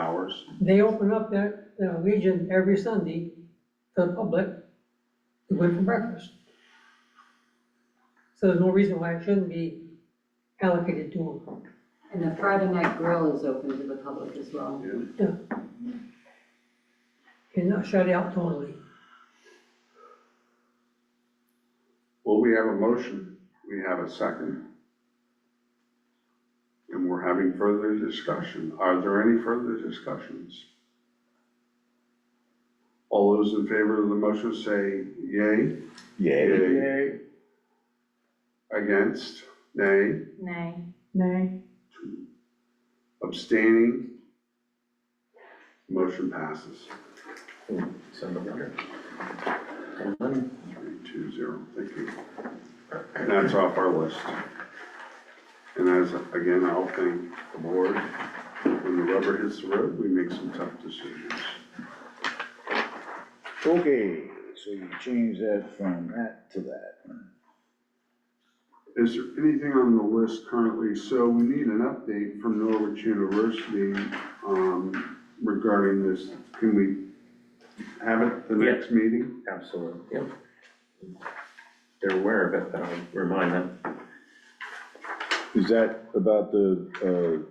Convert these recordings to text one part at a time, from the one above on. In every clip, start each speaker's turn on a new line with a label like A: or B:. A: hours.
B: They open up their, their Legion every Sunday to the public to go in for breakfast. So there's no reason why it shouldn't be allocated to them.
C: And the Friday night grill is open to the public as well.
B: And not shut out totally.
A: Well, we have a motion, we have a second. And we're having further discussion. Are there any further discussions? All those in favor of the motion say yay.
D: Yay.
A: Yay. Against, nay,
E: Nay.
F: Nay.
A: abstaining. Motion passes.
D: Send them here. Come on.
A: Three, two, zero, thank you. And that's off our list. And as, again, I'll thank the board, when the rubber hits the road, we make some tough decisions.
D: Okay, so you change that from that to that.
A: Is there anything on the list currently? So we need an update from Norwich University um, regarding this. Can we have it the next meeting?
G: Absolutely, yep. They're aware of it, but I'll remind them.
D: Is that about the,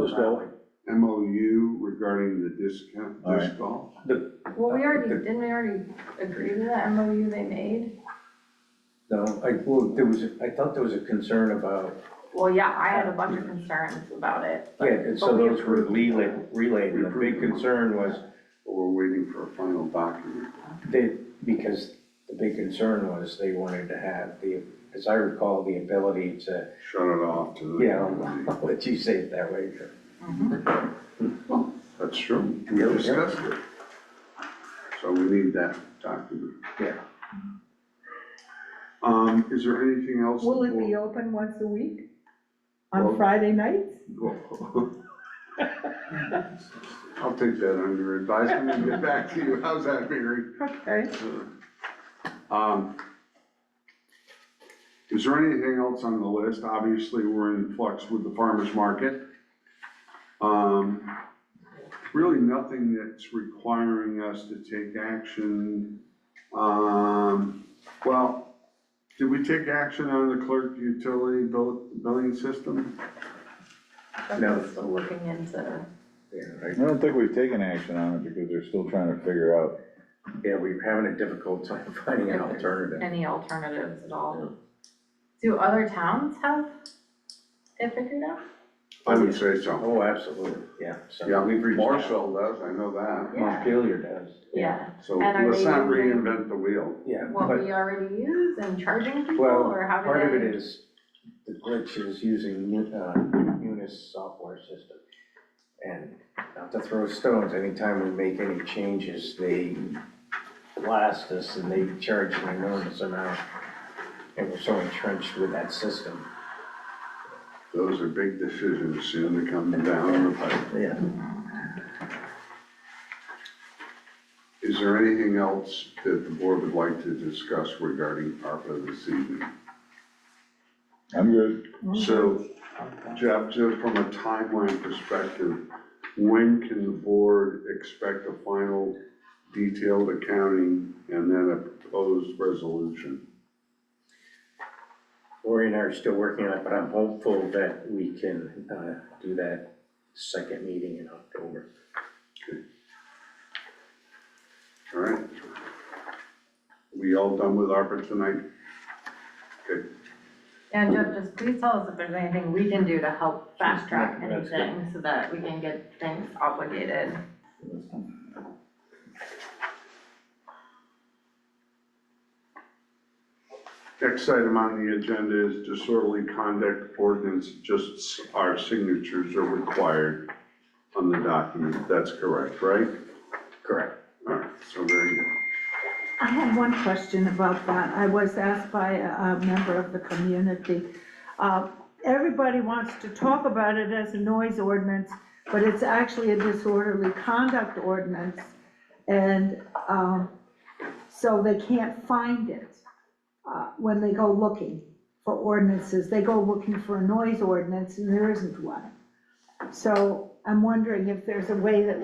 D: uh, disc golf?
A: MOU regarding the discount,
D: All right.
A: disc golf?
E: Well, we already, didn't we already agree to that MOU they made?
G: No, I, well, there was, I thought there was a concern about,
E: Well, yeah, I had a bunch of concerns about it.
G: yeah, and so
E: But we
G: those were
E: approved.
G: relayed, relayed, and the big concern was
A: Or we're waiting for a final document?
G: They, because the big concern was they wanted to have the, as I recall, the ability to,
A: Shut it off to the.
G: you know, I'll let you say it that way.
A: That's true,
G: Yeah,
A: we
G: yeah.
A: discussed it. So we need that document.
G: Yeah.
A: Um, is there anything else?
F: Will it be open once a week? On
A: Well-
F: Friday nights?
A: I'll take that under advisement and get back to you, how's that, Mary?
F: Okay.
A: Um, is there anything else on the list? Obviously, we're in flux with the farmer's market. Um, really nothing that's requiring us to take action. Um, well, did we take action on the clerk utility bill, billing system?
G: No.
E: Still looking into,
G: Yeah,
D: I
G: right.
D: don't think we've taken action on it because they're still trying to figure out.
G: Yeah, we we're having a difficult time finding an alternative.
E: any alternatives at all. Do other towns have it figured out?
A: I would say so.
G: Oh, absolutely, yeah, so
A: Yeah,
G: we've reached out.
A: Marshall does, I know that.
E: Yeah.
G: Montpelier does.
E: Yeah,
A: So
E: And are
A: let's
E: they
A: not
E: using-
A: reinvent the wheel.
G: Yeah,
E: what
G: but
E: we already use and charging people,
G: Well,
E: or how do they?
G: part of it is, the glitch is using Mu- uh, Munis software system. And not to throw stones, anytime we make any changes, they blast us and they charge an enormous amount. And we're so entrenched with that system.
A: Those are big decisions soon to come down the pipe.
G: Yeah.
A: Is there anything else that the board would like to discuss regarding ARPA this evening?
D: I'm good.
A: So, Jeff, just from a timeline perspective, when can the board expect a final detailed accounting and then a proposed resolution?
G: Lori and I are still working on it, but I'm hopeful that we can, uh, do that second meeting in October.
A: All right? We all done with ARPA tonight?
C: And Jeff, just please tell us if there's anything we can do to help fast
G: fast track
C: track
G: That's good.
C: anything so that we can get things obligated.
A: Next item on the agenda is disorderly conduct ordinance, just s- our signatures are required on the document, that's correct, right?
G: Correct.
A: All right, so very good.
F: I have one question about that. I was asked by a a member of the community. Uh, Everybody wants to talk about it as a noise ordinance, but it's actually a disorderly conduct ordinance. And um, so they can't find it uh, when they go looking for ordinances. They go looking for a noise ordinance and there isn't one. So I'm wondering if there's a way that